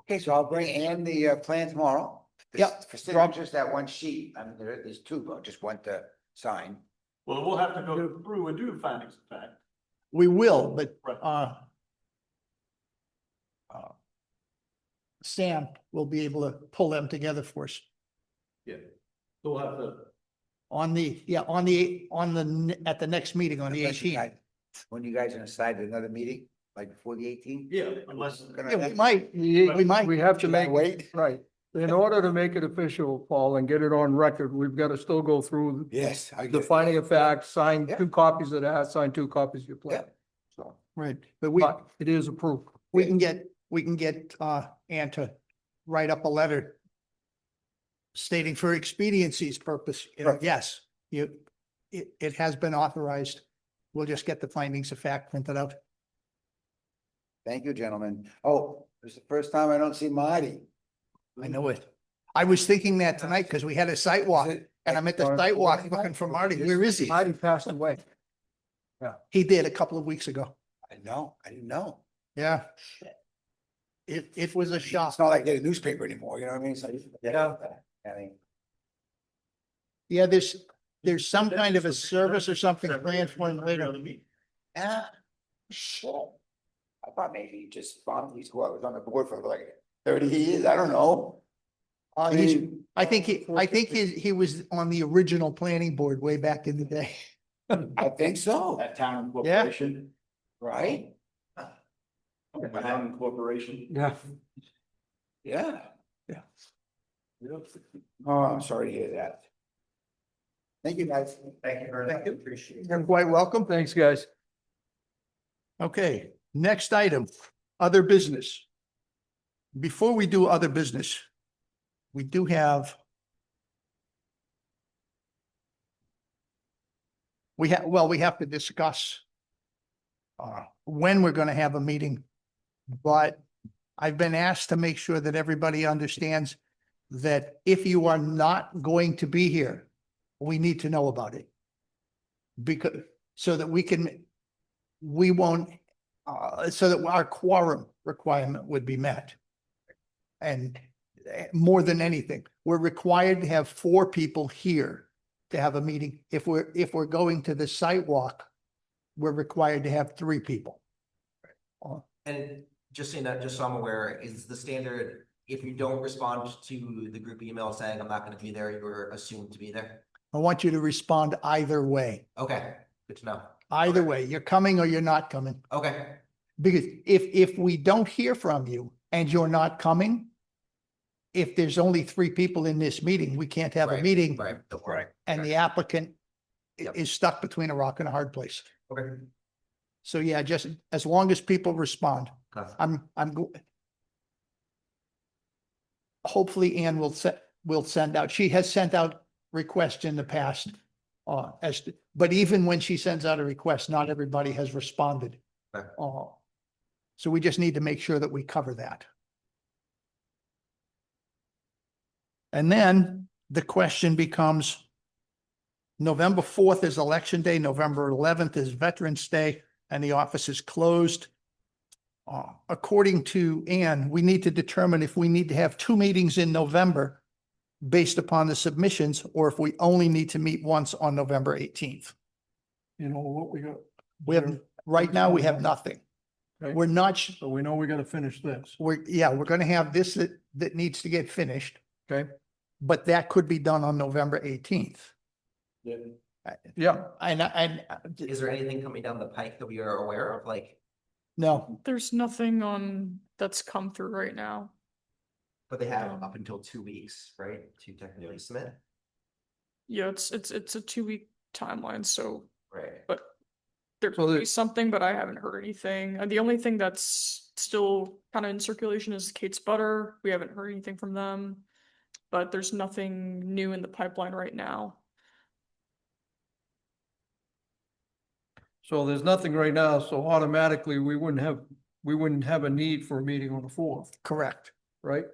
Okay, so I'll bring Ann the uh, plan tomorrow. The Yep. s- For signatures, that one sheet, I mean, there is two, but just want to sign. Well, we'll have to go through and do findings of fact. We will, but, Right. uh, uh, Sam will be able to pull them together for us Yeah. So We'll have to, on the, yeah, on the, on the, n- at the next meeting on the Unless you eighteenth. guys- When you guys are inside another meeting, like before the eighteenth? yeah, unless, Yeah, we might, we might. We have to make, Wait. right, in order to make it official, Paul, and get it on record, we've got to still go through Yes. I get the it. finding of fact, sign Yeah. two copies of that, sign two copies of your plan. So, Right, but we, But it is approved. we can get, we can get, uh, Ann to write up a letter stating for expediency's purpose, you know, Right. yes, you, it, it has been authorized. We'll just get the findings of fact printed out. Thank you, gentlemen. Oh, it's the first time I don't see Marty. I know it. I was thinking that tonight because we had a site walk Is it- and I'm at the Or- site walk looking for Marty. Where is he? Marty passed away. He did a couple of weeks ago. I know, I didn't know. Yeah. It, it was a shock. It's not like getting a newspaper anymore, you know what I mean? So, yeah. I mean, Yeah, there's, there's some kind of a service or something planned for him later. ah, shit. I thought maybe you just found these, who I was on the board for like thirty years, I don't know. Uh, I he's, mean, I think he, I think he, he was on the original planning board way back in the day. I think so, that town Yeah. corporation, right? town corporation. Yeah. Yeah. Yep. Oh, I'm sorry to hear that. Thank you, guys. Thank you very much. Appreciate it. You're quite welcome. Thanks, guys. Okay, next item, other business. Before we do other business, we do have we have, well, we have to discuss uh, when we're going to have a meeting, but I've been asked to make sure that everybody understands that if you are not going to be here, we need to know about it. Because, so that we can, we won't, uh, so that our quorum requirement would be met. And eh, more than anything, we're required to have four people here to have a meeting. If we're, if we're going to the sidewalk, we're required to have three people. And just saying that, just so I'm aware, is the standard, if you don't respond to the group email saying I'm not gonna be there, you're assumed to be there? I want you to respond either way. Okay, good to know. Either Okay. way, you're coming or you're not coming. Okay, Because if, if we don't hear from you and you're not coming, if there's only three people in this meeting, we can't have a Right, meeting right, don't worry. and the applicant i- Yep. is stuck between a rock and a hard place. Okay. So yeah, just as long as people respond, Okay. I'm, I'm go- hopefully Ann will set, will send out, she has sent out requests in the past. Uh, as, to- but even when she sends out a request, not everybody has responded. Okay. Uh, so we just need to make sure that we cover that. And then the question becomes November fourth is election day, November eleventh is Veterans Day, and the office is closed. Uh, according to Ann, we need to determine if we need to have two meetings in November based upon the submissions, or if we only need to meet once on November eighteenth. You know what we got, We have, right now, we have nothing. Okay. We're not, sh- so we know we got to finish this. we're, yeah, we're gonna have this that, that needs to get finished. Okay. But that could be done on November eighteenth. Yeah, And, I- and, uh, Is there anything coming down the pike that we are aware of, like, no, There's nothing on that's come through right now. but they have up until two weeks, right, to technically submit? Yeah, it's it's it's a two week timeline, so Right. there So could the- be something, but I haven't heard anything. Uh, The only thing that's still kind of in circulation is Kate's Butter. We haven't heard anything from them, but there's nothing new in the pipeline right now. so there's nothing right now, so automatically we wouldn't have, we wouldn't have a need for a meeting on the fourth, correct. right?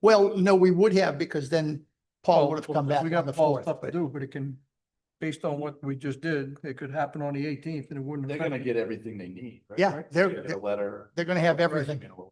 Well, no, we would have because then Paul would have Well, come back We on got the Paul fourth. stuff to but- do, but it can, based on what we just did, it could happen on the eighteenth and it wouldn't. They're affect gonna it. get everything they need. right? Yeah, they're- Get A letter. They're gonna have everything. Email.